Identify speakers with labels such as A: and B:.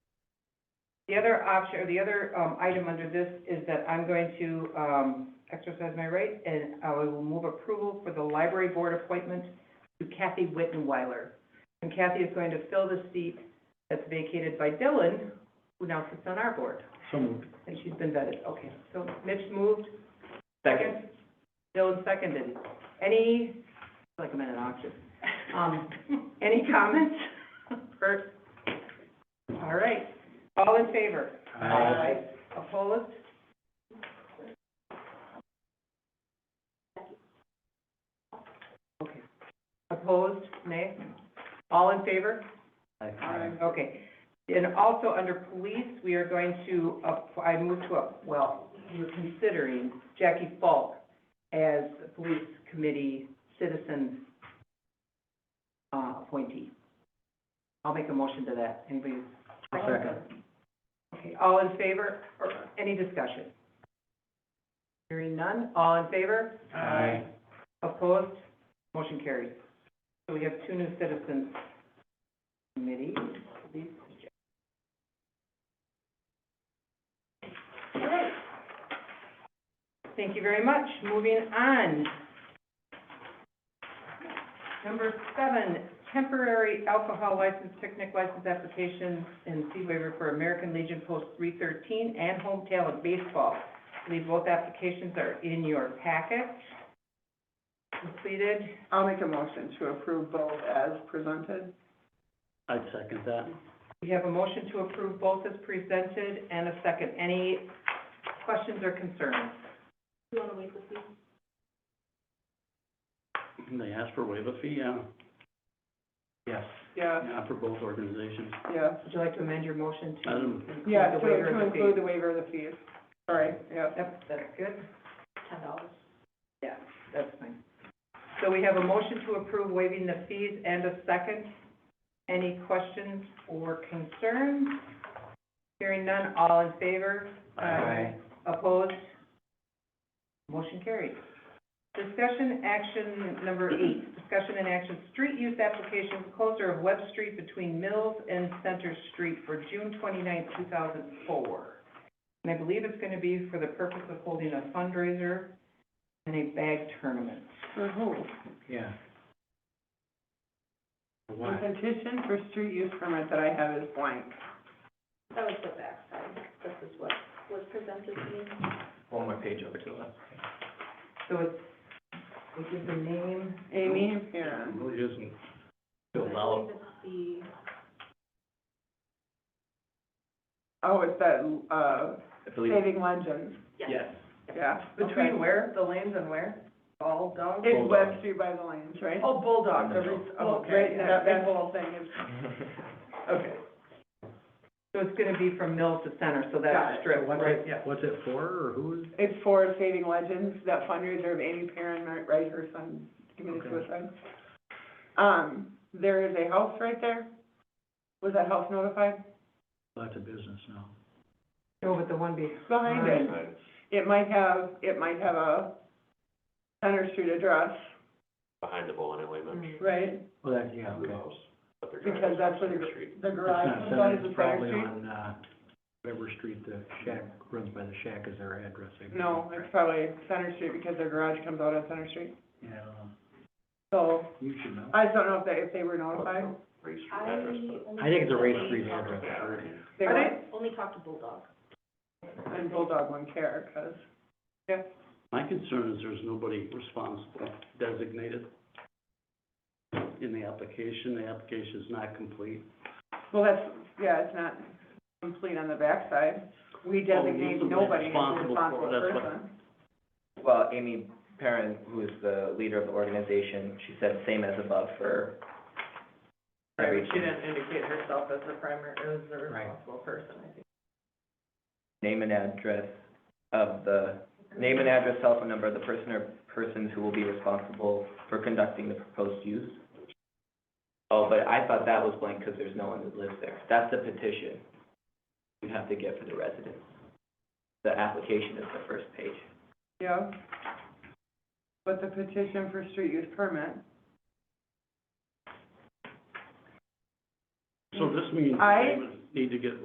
A: The other option, or the other, um, item under this is that I'm going to, um, exercise my right, and I will move approval for the library board appointment to Kathy Wittenweiler. And Kathy is going to fill the seat that's vacated by Dylan, who now sits on our board,
B: So moved.
A: and she's been vetted, okay. So Mitch moved, second, Dylan seconded. Any, like I'm in an auction. Um, any comments? Bert? All right, all in favor?
B: Aye.
A: Opposed? Okay. Opposed, nay? All in favor?
B: Aye.
A: Um, Okay. And also, under police, we are going to, up- I move to, up- well, we're considering Jackie Falk as the police committee citizen uh, appointee. I'll make a motion to that. Anybody?
B: I'll second.
A: Okay, all in favor, or any discussion? Hearing none, all in favor?
B: Aye.
A: Opposed? Motion carries. So we have two new citizens committee. These- All right. Thank you very much. Moving on. Number seven, temporary alcohol license, picnic license application and fee waiver for American Legion Post three thirteen and Home Talent Baseball. I believe both applications are in your packet. Completed.
C: I'll make a motion to approve both as presented.
B: I'd second that.
A: We have a motion to approve both as presented and a second. Any questions or concerns?
B: And They asked for waive a fee, yeah. Yes.
C: Yeah,
B: Yeah, for both organizations.
C: yes.
A: Would you like to amend your motion to
B: Madam-
A: include
C: Yeah,
A: the
C: to,
A: waiver
C: to
A: of the fee?
C: include the waiver of the fees. Sorry, yeah.
A: Yep, that's good. Ten dollars? Yeah, that's fine. So we have a motion to approve waiving the fees and a second. Any questions or concerns? Hearing none, all in favor?
B: Aye.
A: Opposed? Motion carried. Discussion action number eight, discussion and action, street use application, closure of Web Street between Mills and Center Street for June 29, thousand four. And I believe it's gonna be for the purpose of holding a fundraiser and a bag tournament.
C: For who?
B: Yeah. For
C: The
B: What?
C: petition for street use permit that I have is blank.
D: That was the backside, this is what was presented to me.
E: one more page over to the left.
A: So it's, we give the name,
C: Amy and Perrin.
B: Really isn't
E: Filled out.
D: I believe it's
C: Oh, it's that, uh,
E: I believe,
C: Saving Legends,
D: the, yes,
E: yes,
C: yeah.
A: between
C: okay.
A: where, the lanes and where? All down?
C: It's
E: Bulldog.
C: Web Street by the Lanes, right?
A: Oh, Bulldog, the, re- oh,
C: Right,
A: okay, that,
C: that, that
A: that's
C: whole thing is, okay.
A: So it's gonna be from mill to center, so that's
C: Got
A: a
C: it.
A: strip,
B: What's
A: right?
B: it, yeah, what's it for, or who's?
C: It's for Saving Legends, that fundraiser of Amy Perrin, Mar- right, her son committed
B: Okay.
C: suicide. Um, there is a house right there. Was that house notified?
B: Lots of business now.
A: No, but the one be,
C: Behind it. It might have, it might have a Center Street address,
F: behind the bowling alley, but
C: right?
B: Well, that, yeah, okay.
F: house, but they're
C: Mm. Because
F: driving
C: that's
F: across
C: where the,
F: the
C: gr-
F: street.
C: the
B: It's
C: garage
B: not
C: comes out,
B: center,
C: is
B: it's
C: it Center
B: probably
C: Street?
B: on, uh, whatever street the shack, runs by the shack is their address, I believe.
C: No, it's probably Center Street because their garage comes out on Center Street.
B: Yeah, I don't know.
C: So,
B: you should know.
C: I just don't know if they, if they were notified.
F: Race street
D: I
F: address,
D: only.
F: but
B: I think it's a race
D: only
B: street
D: talked-
B: address, sure.
C: They
A: Are
C: were,
D: Only talked to Bulldog.
C: and Bulldog wouldn't care, 'cause- yeah.
B: My concern is there's nobody responsible designated in the application. The application's not complete.
C: Well, that's, yeah, it's not complete on the backside. We
B: Well, Oh, we
C: designate
B: need somebody
C: nobody as a
B: responsible for it,
C: responsible
B: that's what-
C: person.
E: Well, Amy Perrin, who is the leader of the organization, she said same as above for every
A: indicate herself as the primary, as the
B: Right.
A: person, I think.
E: name and address of the, name and address, cell phone number of the person or persons who will be responsible for conducting the proposed use. Oh, but I thought that was blank because there's no one that lives there. That's the petition you have to get for the residents. The application is the first page.
C: Yeah. But the petition for street use permit,
B: So this means
C: I-
B: they would need to get